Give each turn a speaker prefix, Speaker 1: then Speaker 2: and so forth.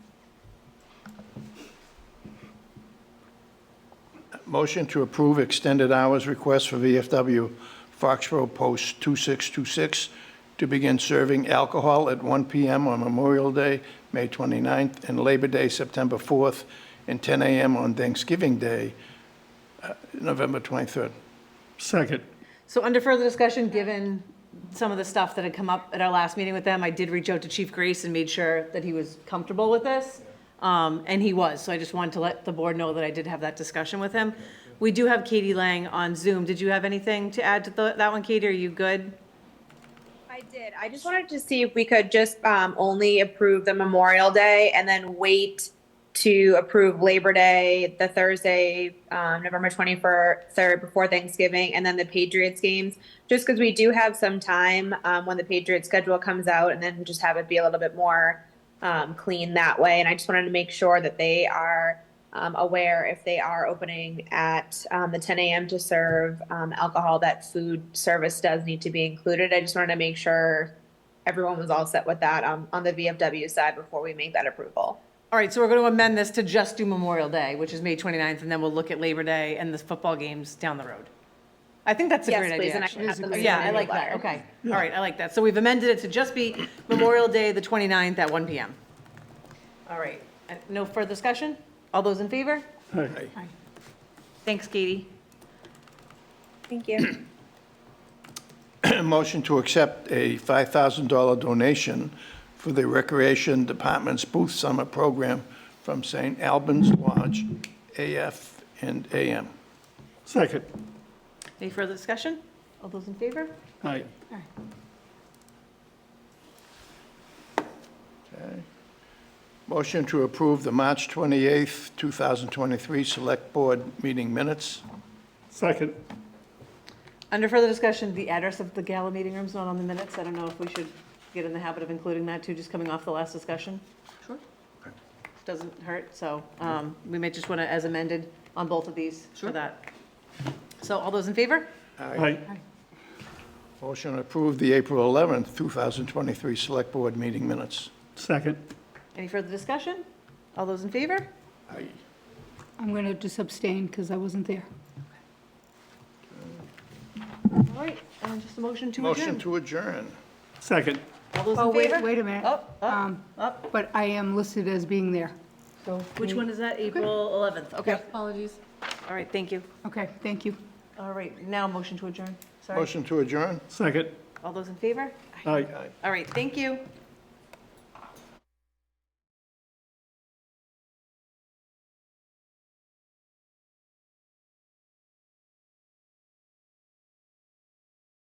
Speaker 1: Motion to approve extended hours request for VFW Foxborough Post 2626 to begin serving alcohol at 1 PM on Memorial Day, May 29th, and Labor Day, September 4th, and 10 AM on Thanksgiving Day, uh, November 23rd.
Speaker 2: Second.
Speaker 3: So under further discussion, given some of the stuff that had come up at our last meeting with them, I did reach out to Chief Grace and made sure that he was comfortable with this. Um, and he was, so I just wanted to let the board know that I did have that discussion with him. We do have Katie Lang on Zoom. Did you have anything to add to the- that one, Katie? Are you good?
Speaker 4: I did. I just wanted to see if we could just um, only approve the Memorial Day and then wait to approve Labor Day, the Thursday, um, November 23rd, before Thanksgiving, and then the Patriots games, just because we do have some time um, when the Patriots schedule comes out, and then just have it be a little bit more um, clean that way. And I just wanted to make sure that they are um, aware if they are opening at um, the 10 a.m. to serve um, alcohol, that food service does need to be included. I just wanted to make sure everyone was all set with that um, on the VFW side before we make that approval.
Speaker 3: All right, so we're going to amend this to just do Memorial Day, which is May 29th, and then we'll look at Labor Day and the football games down the road. I think that's a
Speaker 4: Yes,
Speaker 3: great
Speaker 4: please,
Speaker 3: idea.
Speaker 4: and I
Speaker 3: actually.
Speaker 4: can have them
Speaker 3: Yeah, I
Speaker 4: amended
Speaker 3: like that,
Speaker 4: letter.
Speaker 3: okay. All right, I like that. So we've amended it to just be Memorial Day, the 29th at 1 PM. All right, Uh, no further discussion? All those in favor?
Speaker 2: Aye.
Speaker 3: Thanks, Katie.
Speaker 4: Thank you.
Speaker 1: Motion to accept a $5,000 donation for the Recreation Department's Booth Summer Program from St. Albans Lodge, AF and AM.
Speaker 2: Second.
Speaker 3: Any further discussion? All those in favor?
Speaker 2: Aye.
Speaker 1: Motion to approve the March 28th, 2023 Select Board Meeting Minutes.
Speaker 2: Second.
Speaker 3: Under further discussion, the address of the gala meeting room's not on the minutes. I don't know if we should get in the habit of including that too, just coming off the last discussion. Sure. Doesn't hurt, so um, we may just want to, as amended, on both of these for that. So all those in favor?
Speaker 2: Aye.
Speaker 1: Motion to approve the April 11th, 2023 Select Board Meeting Minutes.
Speaker 2: Second.
Speaker 3: Any further discussion? All those in favor?
Speaker 1: Aye.
Speaker 5: I'm going to just abstain because I wasn't there.
Speaker 3: All right, and just a motion to
Speaker 1: Motion
Speaker 3: adjourn.
Speaker 1: to adjourn.
Speaker 2: Second.
Speaker 3: All those
Speaker 5: Oh,
Speaker 3: in
Speaker 5: wait,
Speaker 3: favor? oh.
Speaker 5: wait a minute.
Speaker 3: Up, up,
Speaker 5: Um,
Speaker 3: up.
Speaker 5: But I am listed as being there. So,
Speaker 3: Which one is that? April 11th, okay.
Speaker 5: Apologies.
Speaker 3: All right, thank you.
Speaker 5: Okay, thank you.
Speaker 3: All right, now motion to adjourn. Sorry.
Speaker 1: Motion to adjourn.
Speaker 2: Second.
Speaker 3: All those in favor?
Speaker 2: Aye.
Speaker 3: All right, thank you.